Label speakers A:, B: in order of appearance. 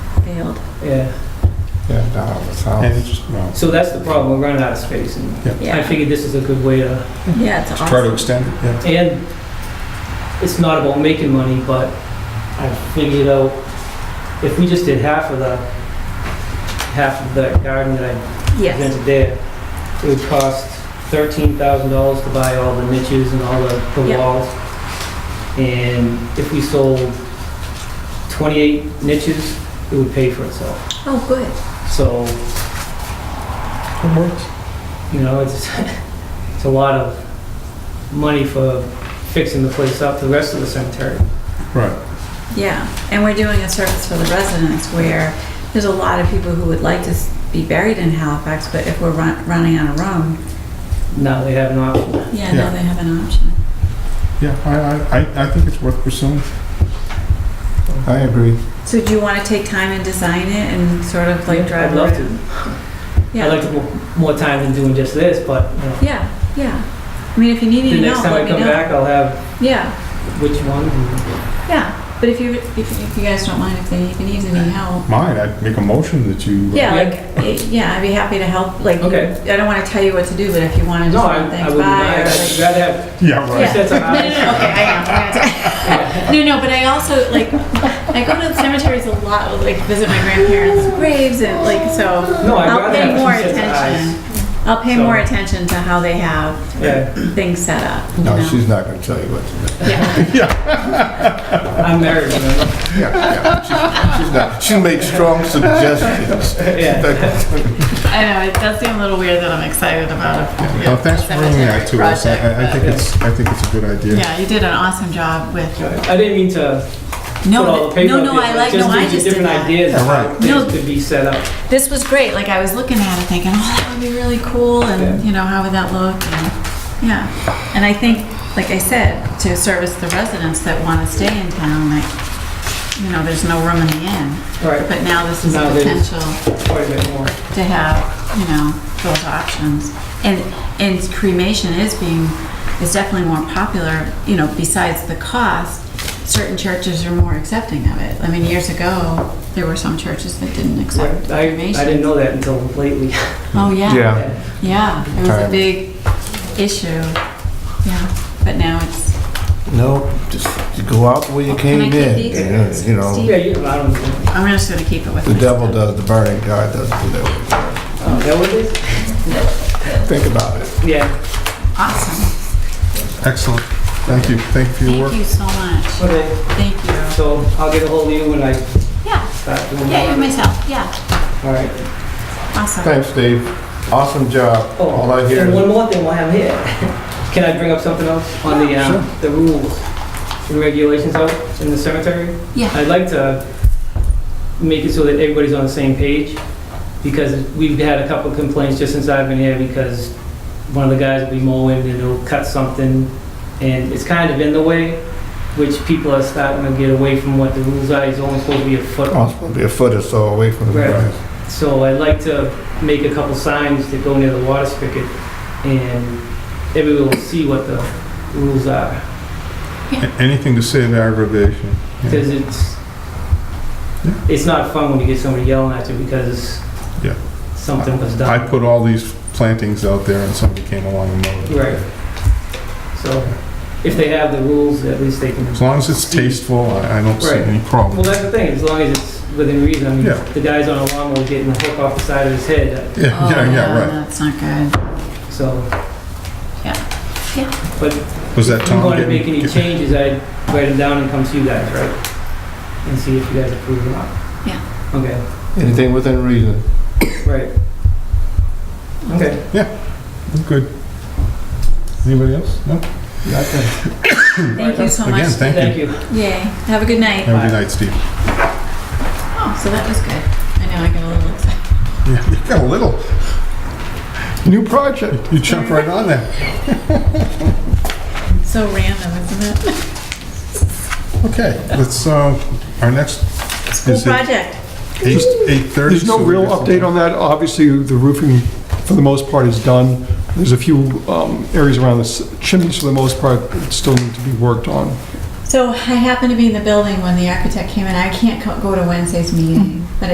A: failed.
B: yeah.
C: Yeah, down on the
D: And
C: south.
D: it's, well,
B: So that's the problem, we're running out of space, and I
A: Yeah,
B: figured this is a good way to,
A: yeah, it's
D: to try to
A: awesome.
D: extend it, yeah.
B: and it's not about making money, but I figured out, if we just did half of the, half of that garden that I
A: Yes,
B: presented there, it would cost thirteen thousand dollars to buy all the niches and all the, the
A: Yeah.
B: walls. And if we sold twenty-eight niches, it would pay for itself.
A: oh, good.
B: So,
D: It works.
B: you know, it's, it's a lot of money for fixing the place up, the rest of the cemetery.
D: Right,
A: Yeah, and we're doing a service for the residents where there's a lot of people who would like to s- be buried in Halifax, but if we're run- running out of room,
B: Now they have an option.
A: yeah, now
D: Yeah.
A: they have an option.
D: yeah, I, I- I, I think it's worth pursuing.
C: I agree.
A: So do you want to take time and design it and sort of like drive
B: I'd
A: around?
B: love to, I'd
A: Yeah,
B: like to mo- more time than doing just this, but, you know,
A: yeah, yeah. I mean, if you need
B: the
A: any
B: next
A: help,
B: time
A: let
B: I
A: me know.
B: come back, I'll have
A: Yeah,
B: which one. and-
A: yeah, but if you, if if you guys don't mind, if they even need any help.
D: Mine, I'd make a motion that you. uh,
A: Yeah,
B: Yeah.
A: like, eh, yeah, I'd be happy to help, like, you-
B: Okay.
A: I don't want to tell you what to do, but if you want to
B: No,
A: just
B: I,
A: run
B: I
A: things
B: wouldn't
A: by
B: mind,
A: or like.
B: I'd rather have
D: Yeah, right.
A: Yeah.
B: sets of
A: No, no,
B: eyes.
A: no, okay, I know. I know. No, no, but I also, like, I go to the cemeteries a lot, like, visit my grandparents' graves and, like, so
B: No, I'd
A: I'll
B: rather
A: pay
B: have
A: more
B: two sets of eyes.
A: attention. I'll pay
B: So-
A: more attention to how they have
B: Yeah,
A: things set up, you
C: No,
A: know?
C: she's not gonna tell you what to do.
A: Yeah,
B: I'm married, you know.
C: Yeah, yeah, she's- She's not, she makes strong suggestions.
B: Yeah.
A: I know, it does seem a little weird that I'm excited about it.
D: Well, thanks for bringing that to us. I- I, I think
B: Project.
D: it's, I think it's a good idea.
A: Yeah, you did an awesome job with,
B: I didn't mean to put all
A: no,
B: the paper
A: no,
B: up
A: no,
B: there,
A: I
B: but
A: like, no, I
B: gives you
A: just did
B: Different
A: that.
B: ideas, of
D: Yeah,
B: how
D: right.
A: No.
B: things could be set up.
A: this was great. Like I was looking at it thinking, oh, that would be really cool, and
B: Yeah.
A: you know, how would that look? And, yeah, and I think, like I said, to service the residents that want to stay in town, like you know, there's no room in the inn,
B: Right,
A: but now this is a
B: Now there's-
A: potential
B: quite a bit more.
A: to have you know those options, and and cremation is being is definitely more popular. You know, besides the cost. Certain churches are more accepting of it. I mean, years ago, there were some churches that didn't accept
B: I, I
A: cremation.
B: didn't know that until lately.
A: Oh, yeah.
B: Yeah.
A: Yeah, it was a
C: Time.
A: big issue. Yeah, but now it's,
C: No, just go out the way you
A: Can
C: came
A: I
C: in,
A: keep these?
C: you know.
A: Steve?
B: Yeah, you, I don't, know.
A: I'm just gonna keep it with
C: The
A: me.
C: devil does the burning, God does the living.
B: oh, that what it is?
C: Think about it.
B: Yeah,
A: Awesome.
D: Excellent. Thank you. Thank you for your work.
A: Thank you so much.
B: okay,
A: Thank you.
B: so I'll get ahold of you when I
A: Yeah,
B: start doing my...
A: yeah, you're myself. Yeah,
B: All right.
A: awesome.
C: Thanks, Dave. Awesome job.
B: Oh,
C: All I hear
B: And
C: is
B: one more thing while I'm here. Can I bring up something else on the, um, the rules and regulations out in the cemetery?
A: Yeah,
B: I'd like to make it so that everybody's on the same page, because we've had a couple complaints just since I've been here, because one of the guys will be mowing and he'll cut something, and it's kind of in the way, which people are starting to get away from what the rules are, it's only supposed to be a foot.
C: oh, it's supposed to be a foot or so away from the
B: Right.
C: ground.
B: So I'd like to make a couple signs that go near the water spigot, and everyone will see what the rules are.
D: A- Anything to save aggravation. Yeah.
B: Because it's,
D: Yeah.
B: it's not fun when you get somebody yelling at you because
D: Yeah.
B: something was
D: I
B: done.
D: put all these plantings out there and somebody came along and mowed it.
B: Right. So if they have the rules, at least they can,
D: As long as it's tasteful, I, I don't see
B: Right.
D: any
B: well,
D: problem.
B: that's the thing, as long as it's within reason. I mean,
D: Yeah.
B: the guy's on a lawnmower getting the hook off the side of his head, uh,
D: Yeah,
A: oh,
D: yeah, yeah,
A: no,
D: right.
A: that's not good.
B: so.
A: Yeah. Yeah.
B: But
D: Was that
B: if I'm
D: Tom?
B: going to
D: getting-
B: make any
D: get-
B: changes, I'd write them down and come to you guys, right? And see if you guys approve or not.
A: Yeah.
B: Okay,
C: Anything within reason.
B: right. Okay,
D: Good. Anybody else? No?
A: Thank you so much.
D: Again, thank
B: thank
D: you.
B: you.
A: Yay, have a good night.
D: Have a good night, Steve.
A: Oh, so that was good. I know, I got a little excited.
D: Yeah, you got a little. New project. You jump right on that.
A: So random, isn't it?
D: Okay, let's, uh, our next
A: School
D: Is it-
A: project.
D: eight, eight thirty.
E: There's no real update on that. Obviously, the roofing, for the most part, is done. There's a few um, areas around the s- chimneys, for the most part, that still need to be worked on.
A: So I happened to be in the building when the architect came in. I can't co- go to Wednesday's meeting, but